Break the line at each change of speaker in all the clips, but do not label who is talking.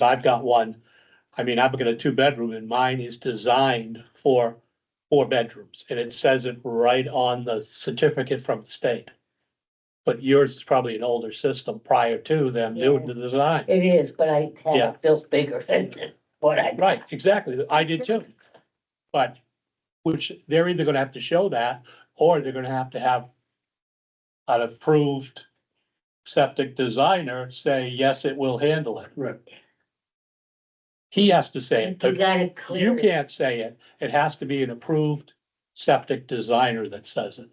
So I've got one, I mean, I've got a two bedroom and mine is designed for four bedrooms and it says it right on the certificate from the state. But yours is probably an older system prior to them doing the design.
It is, but I had
Yeah.
it built bigger than what I.
Right, exactly. I did too. But, which they're either gonna have to show that, or they're gonna have to have an approved septic designer say, yes, it will handle it.
Right.
He has to say
You
it. The-
gotta
You
clear it.
can't say it. It has to be an approved septic designer that says it.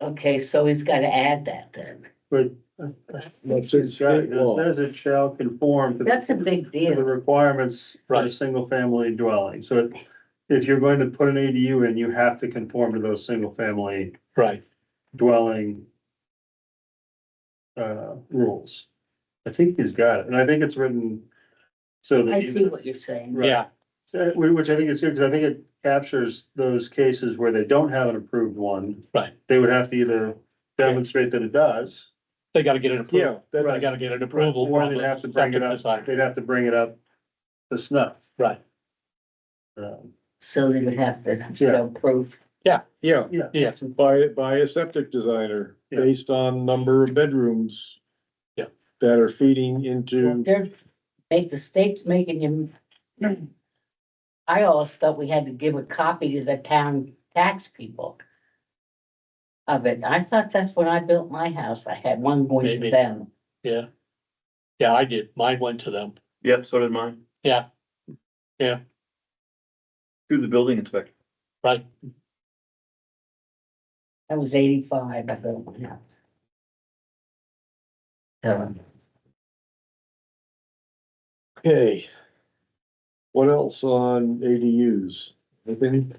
Okay, so he's gotta add that then.
But it
That's
says
great law.
it shall conform to the-
That's a big
to the
deal.
requirements for a
Right.
single family dwelling. So it- if you're going to put an ADU in, you have to conform to those single family
Right.
dwelling uh, rules. I think he's got it, and I think it's written so that.
I
you-
see what you're saying.
Right.
Yeah,
Uh, whi- Which I think is good, because I think it captures those cases where they don't have an approved one.
Right.
They would have to either demonstrate that it does.
they gotta get an approval.
that-
They gotta get an approval.
Or
from
they'd
the
have to bring it
septic
up,
designer.
they'd have to bring it up to snuff.
Right.
Um,
So they would have to you
Yeah.
know, prove.
Yeah,
Yeah,
by, by a septic designer,
Yeah.
based on number of bedrooms.
Yeah.
That are feeding into,
They're, make the state's making him. I always thought we had to give a copy to the town tax people. Of it. I thought that's when I built my house. I had one going
Maybe.
to them.
yeah. Yeah, I did. Mine went to them.
Yep, so did mine.
Yeah. Yeah.
Through the building inspector.
Right,
I was eighty-five. I built my house. So.
okay. What else on ADUs? Anything?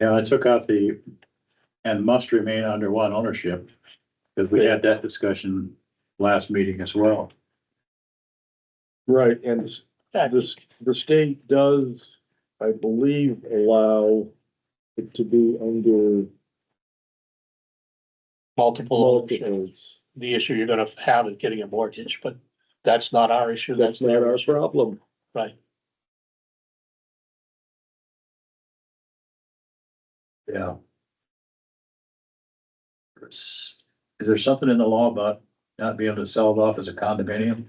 Yeah, I took out the, and must remain under one ownership, because we had that discussion last meeting as well.
Right, and s-
Yeah,
this, the state does, I believe, allow it to be under
multiple ownership.
multiples.
The issue you're gonna have is getting a mortgage, but that's not our issue.
That's not
their
our
issue.
problem.
Right.
Yeah. Is is there something in the law about not being able to sell it off as a condominium?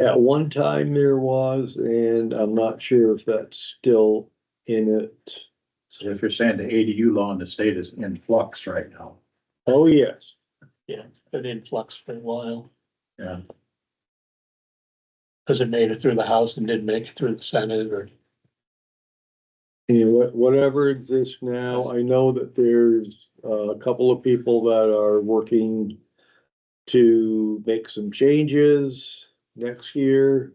At one time there was, and I'm not sure if that's still in it.
So if you're saying the ADU law in the state is in flux right now.
Oh, yes.
Been in flux for a while.
Yeah.
Cause it made it through the House and didn't make it through the Senate or,
Yeah, what, whatever exists now, I know that there's uh, a couple of people that are working to make some changes next year.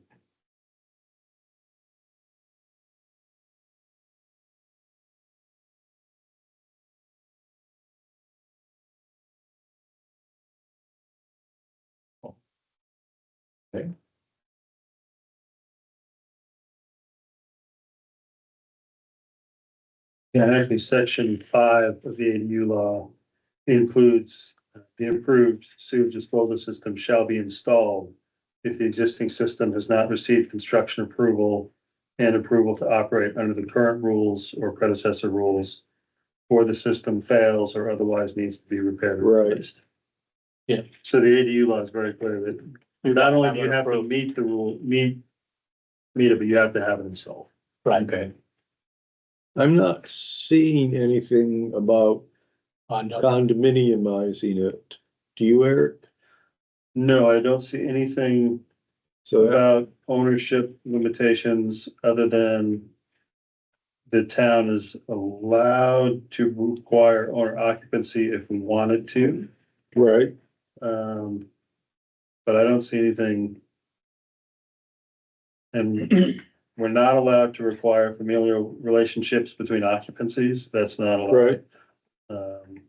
Yeah, and actually, section five of the ADU law includes uh, the improved sewage disposal system shall be installed if the existing system has not received construction approval and approval to operate under the current rules or predecessor rules, or the system fails or otherwise needs to be repaired or
Right.
replaced.
Yeah.
So the ADU law is very clear that not only do you have to
Approved.
meet the rule, meet, meet it, but you have to have it installed.
right,
Okay.
I'm not seeing anything about
on, uh,
condominiumizing it. Do you, Eric?
No, I don't see anything
So that-
about ownership limitations other than the town is allowed to require owner occupancy if we wanted to.
right,
Um, but I don't see anything. And we're not allowed to require familial relationships between occupancies. That's not allowed.
right,
Um,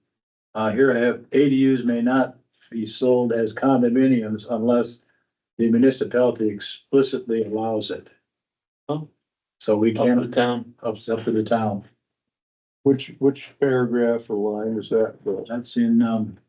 Uh, here I have ADUs may not be sold as condominiums unless the municipality explicitly allows it.
Oh.
So we
up
can't,
and down.
it's up to the town.
which, which paragraph or line is that? Bill?
That's in, um,